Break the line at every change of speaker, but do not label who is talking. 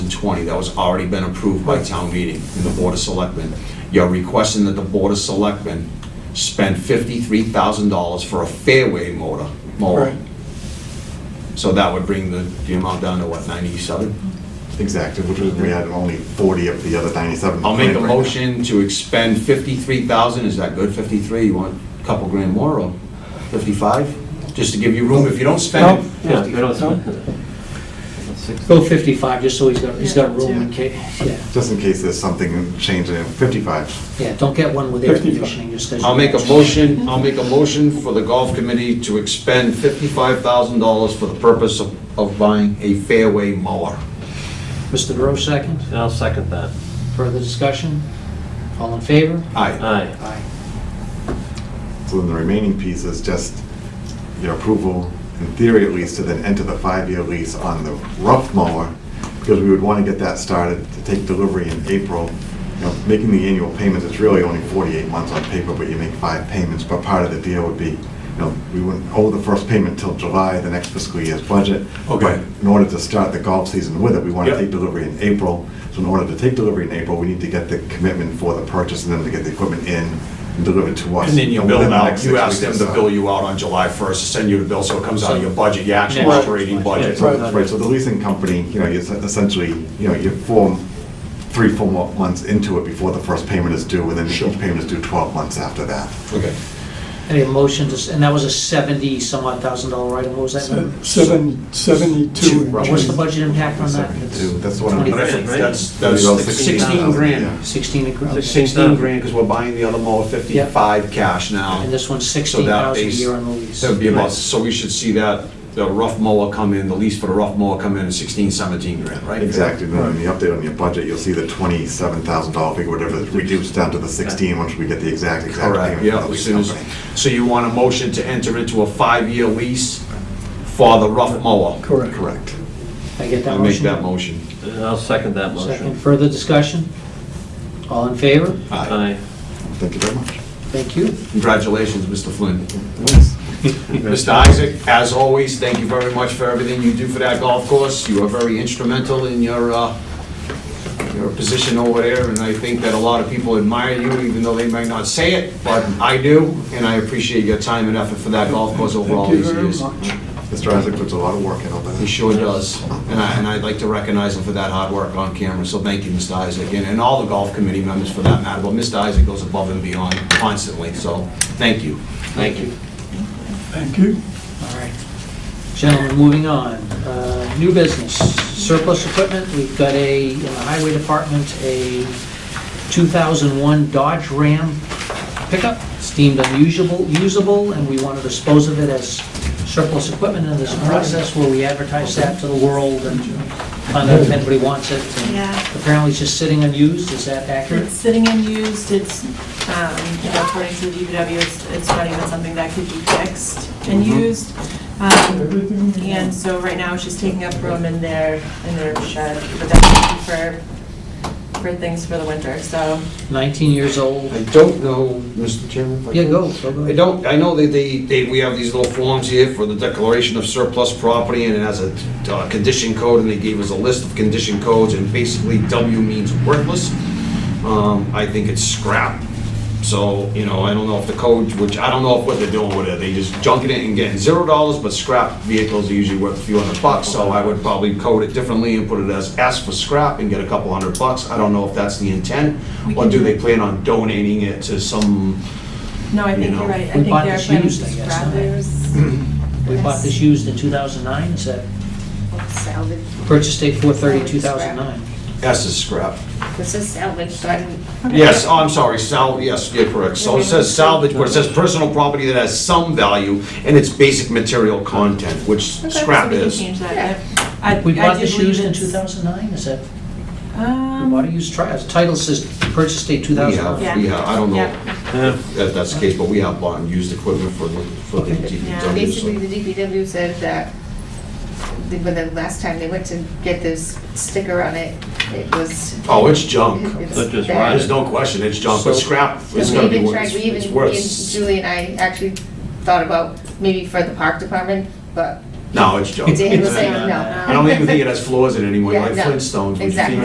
2020 that was already been approved by town meeting and the Board of Selectmen. You're requesting that the Board of Selectmen spend $53,000 for a fairway motor, mower.
Right.
So that would bring the, the amount down to what, 97?
Exactly, which was, we had only 40 of the other 97.
I'll make a
Right now.
motion to expend 53,000, is that good, 53? You want a couple grand more, or 55? Just to give you room, if you don't spend it,
Yeah, we don't
No?
spend it.
Go 55, just so he's got, he's got room in
Yeah.
case, yeah,
Just in case there's something changing, in 55.
yeah, don't get one with air
55.
conditioning just 'cause
I'll
you-
make a motion, I'll make a motion for the golf committee to expend fifty-five thousand dollars for the purpose of, of buying a fairway mower.
Mr. DeRoe, second.
And I'll second that.
Further discussion? All in favor?
Aye.
Aye.
Aye.
So then the remaining piece is just your approval, in theory at least, to then enter the five-year lease on the rough mower, because we would want to get that started to take delivery in April. You know, making the annual payments, it's really only 48 months on paper, but you make five payments, but part of the deal would be, you know, we wouldn't owe the first payment till July, the next fiscal year's budget.
Okay.
But in order to start the golf season with it, we want to
Yep.
take delivery in April. So in order to take delivery in April, we need to get the commitment for the purchase and then to get the equipment in and delivered to us.
And then you
Within
bill
the
out,
next
you
six
ask them
weeks
to
or so.
bill you out on July first, send you the bill, so it comes out of your budget, your actual
Right.
operating
Yeah,
budget.
so-
Right, right, so the leasing company, you know, you s- essentially, you know, you form three, four mo- months into it before the first payment is due, and then each payment is due 12 months after that.
Okay.
Any motion, to s- and that was a 70 some odd thousand dollar item, what was that number?
Se- Seven, seventy-two. and
Right.
What's the
change.
budget impact on that? It's
72, that's the one I'm-
But I
25.
think that's,
Maybe
that's
about
sixteen
16,000,
grand.
yeah.
16 grand. okay.
Sixteen grand, because we're buying the other mower fifty-five cash now.
And this one's
So that
16,000 a
base-
year on the lease.
That would be about, so we should see that, the rough mower come in, the lease for the rough mower come in at sixteen, seventeen grand, right?
Exactly, and then in the update on your budget, you'll see the $27,000 figure, whatever, is reduced down to the 16, once we get the exact, exact payment.
Correct,
from
yeah,
the
as
lease
soon as,
company.
so you want a motion to enter into a five-year lease for the rough mower?
Correct.
Correct.
I get
I
that
make
motion?
that motion.
And I'll second that
Second,
motion.
further discussion? All in favor?
Aye.
Aye.
Thank you very much.
Thank you.
Congratulations, Mr. Flynn.
Thanks.
Mr. Isaac, as always, thank you very much for everything you do for that golf course. You are very instrumental in your, uh, your position over there, and I think that a lot of people admire you, even though they might not say it, but I do, and I appreciate your time and effort for that golf course over all
Thank you
these
very
years.
much.
Mr. Isaac puts a lot of work in all
He
that.
sure does. And I, and I'd like to recognize him for that hard work on camera, so thank you, Mr. Isaac, and, and all the golf committee members for that matter. But Mr. Isaac goes above and beyond constantly, so thank you.
Thank you.
Thank you.
All right. Gentlemen, moving on. Uh, New business, surplus equipment. We've got a, in the highway department, a 2001 Dodge Ram pickup. It's deemed unusable, usable, and we want to dispose of it as surplus equipment in this process where we advertise that to the world and find out if anybody wants it. And
Yeah.
Apparently it's just sitting unused. Is that accurate?
It's sitting unused, it's, um, you know, according to the DPW, it's, it's not even something that could be fixed and used. Um,
Everything we
And
want.
so right now, it's just taking up room in their, in their shed, but that's for, for things for the winter, so.
19 years old.
I don't know, Mr. Chairman. if I
Yeah,
can-
go, go, go.
I don't, I know that they, they, we have these little forms here for the declaration of surplus property, and it has a uh, condition code, and they gave us a list of condition codes, and basically W means worthless. Um, I think it's scrap. So, you know, I don't know if the code, which I don't know if what they're doing with it, they just junking it and getting zero dollars, but scrap vehicles are usually worth a few hundred bucks, so I would probably code it differently and put it as S for scrap and get a couple hundred bucks. I don't know if that's the intent,
We
or
can
do
do
they
it.
plan on donating it to some
No, I
You
think
know,
you're right, I
we
think
bought
they're
this
planning
used,
to
I guess,
scrap
don't we?
theirs.
We bought this used in 2009. Is that
Salvage,
purchase date 4/30/2009?
S is scrap.
this is salvage, so I didn't
Yes, oh, I'm sorry, sal, yes, yeah, correct. So it says salvage, but it says personal property that has some value and it's basic material content, which
Okay, so
scrap
we can
is.
change that. I- I-
We
I
bought
did
this used
believe
in
it's-
2009, is that, we
Um,
bought a used truck, the uh, title says purchase date
We
2009.
have, we have, I don't know
Yeah.
Yeah.
if that's the case, but we have bought and used equipment for, the- for the
Okay.
DPW.
Basically,
so-
the DPW said that, the- when the last time they went to get this sticker on it, it was.
Oh, it's junk.
it's
That just
bad.
There's no question, it's junk, but
So-
scrap
So
is
We
gonna be
even
worth,
tried, we
it's
even, me and
worth.
Julie and I actually thought about maybe for the park department, but
No, it's junk.
Dan was like,
I don't
no.
even think it has floors in it anymore,
Yeah,
like
no.
Flintstones, when your
Exactly.
feet